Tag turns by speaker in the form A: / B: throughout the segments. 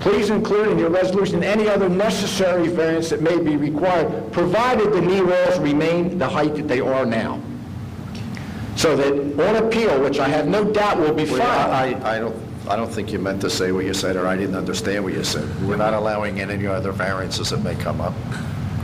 A: Please include in your resolution any other necessary variance that may be required, provided the knee walls remain the height that they are now. So that on appeal, which I have no doubt will be
B: Well,
A: filed,
B: I, I- I don't, I don't think you meant to say what you said, or I didn't understand what you said. We're not allowing any other variances that may come up.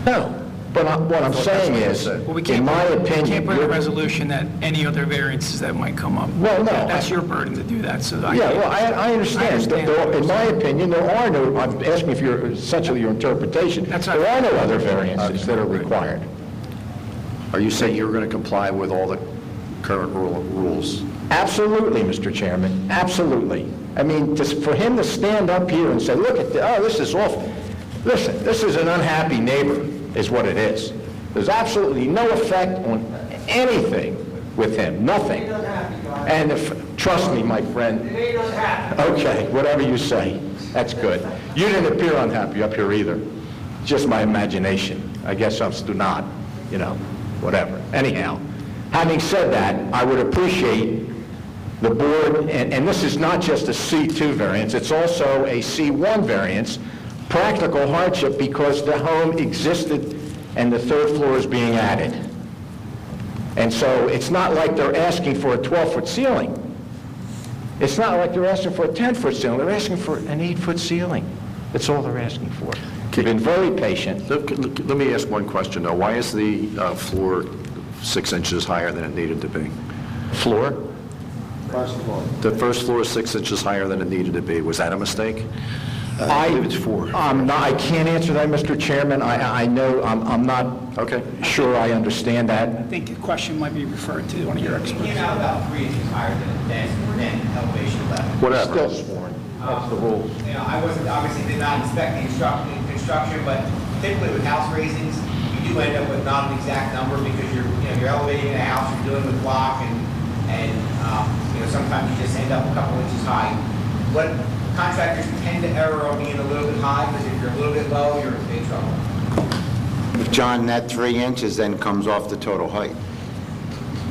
A: no, but I- what I'm saying is,
B: Well,
C: Well, we
A: in
C: can't,
A: my
C: we
A: opinion,
C: can't put in a
A: you're-
C: resolution that any other variances that might come up.
A: Well, no,
C: That's
A: I-
C: your burden to do that, so I.
A: Yeah, well, I, I
C: I
A: understand.
C: understand.
A: There- In my opinion, there are no, I'm asking if you're, essentially your interpretation.
C: That's not-
A: There are no other variances that are required.
B: Are you saying you're going to comply with all the current rule- rules?
A: Absolutely, Mr. Chairman, absolutely. I mean, just for him to stand up here and say, look at, the- oh, this is awful. Listen, this is an unhappy neighbor, is what it is. There's absolutely no effect on anything with him, nothing. And if, trust me, my friend. Okay, whatever you say, that's good. You didn't appear unhappy up here either, just my imagination. I guess I'm still not, you know, whatever. Anyhow, having said that, I would appreciate the board, and, and this is not just a C2 variance, it's also a C1 variance, practical hardship because the home existed and the third floor is being added. And so it's not like they're asking for a 12-foot ceiling. It's not like they're asking for a 10-foot ceiling, they're asking for an eight-foot ceiling. That's all they're asking for. They've been very patient.
B: Let let me ask one question, though. Why is the uh, floor six inches higher than it needed to be?
A: Floor?
B: The first floor is six inches higher than it needed to be. Was that a mistake?
A: I
B: Uh, believe it's four.
A: I'm not, I can't answer that, Mr. Chairman. I, I know, I'm, I'm not
B: Okay.
A: sure I understand that.
C: I think the question might be referred to one of your
D: It
C: experts.
D: came out about three inches higher than, than, than elevation level.
B: Whatever.
A: sworn. That's the rules.
D: You know, I wasn't, obviously did not inspect the instruction, construction, but typically with house raisings, you do end up with not an exact number because you're, you know, you're elevating the house, you're doing the block and, and, um, you know, sometimes you just end up a couple inches high. What contractors tend to err on being a little bit high, because if you're a little bit low, you're in big trouble.
E: John, that three inches then comes off the total height.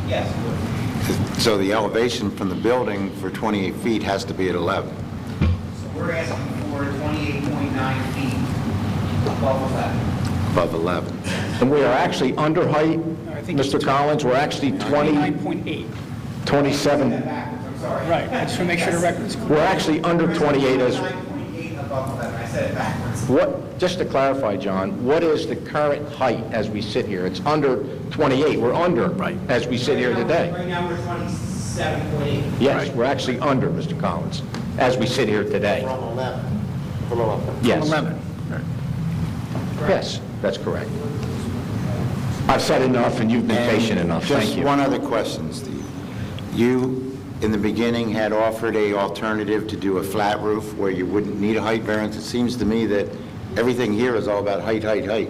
D: Yes, it would.
E: So the elevation from the building for 28 feet has to be at 11.
D: so we're asking for twenty-eight point nine feet above eleven.
E: Above 11.
A: And we are actually under height,
C: I think it's
A: Mr. Collins, we're actually 20,
C: 29.8,
A: 27,
D: backwards, I'm sorry.
C: right, I just want to make sure the record's clear.
A: we're actually under 28 as,
D: 9.8 above 11, I said it backwards.
A: what, just to clarify, John, what is the current height as we sit here? It's under 28, we're under. Right. As we sit here today.
D: Right now, we're 27.8.
A: Yes, we're actually under, Mr. Collins, as we sit here today. From 11, from 11. Yes.
C: 11.
A: Yes, that's correct. I've said enough, and you've been patient enough, thank
E: Just
A: you.
E: one other question, Steve. You, in the beginning, had offered a alternative to do a flat roof where you wouldn't need a height variance. It seems to me that everything here is all about height, height, height.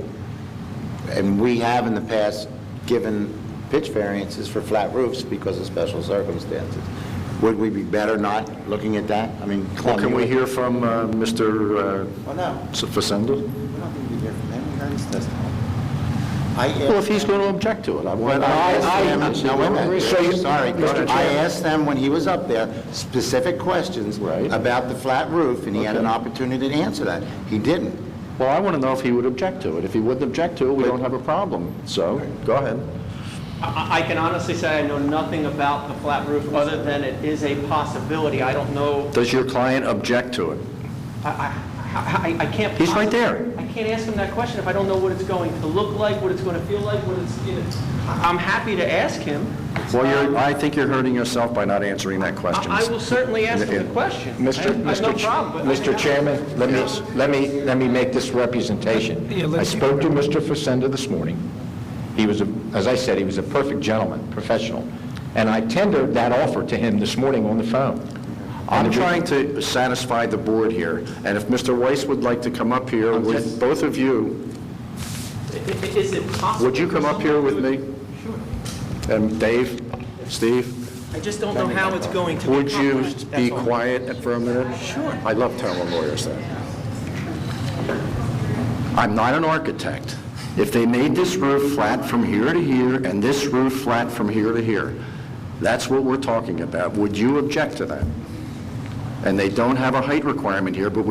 E: And we have in the past given pitch variances for flat roofs because of special circumstances. Would we be better not looking at that? I mean,
B: Well, can we
E: you-
B: hear from uh, Mr.
E: Well, no,
B: Facenda?
E: we're not going to be here from him. We heard his testimony.
B: Well, if he's going to object to it, I want...
E: But
A: I-
E: I asked them,
A: I-
E: no, wait a minute,
A: So you-
E: sorry,
A: Mr. Chairman.
E: I asked them when he was up there specific questions
B: Right.
E: about the flat roof, and he had an opportunity to answer that. He didn't.
B: Well, I want to know if he would object to it. If he wouldn't object to it, we don't have a problem. So, go ahead.
F: I I can honestly say I know nothing about the flat roof, other than it is a possibility. I don't know,
B: Does your client object to it?
F: I- I I- I can't...
B: He's right there.
F: I can't ask him that question if I don't know what it's going to look like, what it's going to feel like, what it's, you know... I- I'm happy to ask him.
B: Well, you're,
F: Um,
B: I think you're hurting yourself by not answering that question.
F: I I will certainly ask him the question. I
A: Mr.
F: have- I have no
A: Mr. Ch-
F: problem, but... I think
A: Mr.
F: I-
A: Chairman, let me, let me, let me make this representation.
C: Yeah,
A: I
C: let's-
A: spoke to Mr. Facenda this morning. He was, a- as I said, he was a perfect gentleman, professional, and I tendered that offer to him this morning on the phone.
B: I'm trying to satisfy the board here, and if Mr. Weiss would like to come up here with both of you,
F: I- i- Is it possible...
B: would you
F: for
B: come up here
F: someone
B: with
F: to-
B: me? And Dave, Steve?
F: I just don't know how it's going to...
B: Would you
F: That's
B: be
F: all.
B: quiet for a minute? Sure. I love telling lawyers that. I'm not an architect. If they made this roof flat from here to here and this roof flat from here to here, that's what we're talking about. Would you object to that? And they don't have a height requirement here, but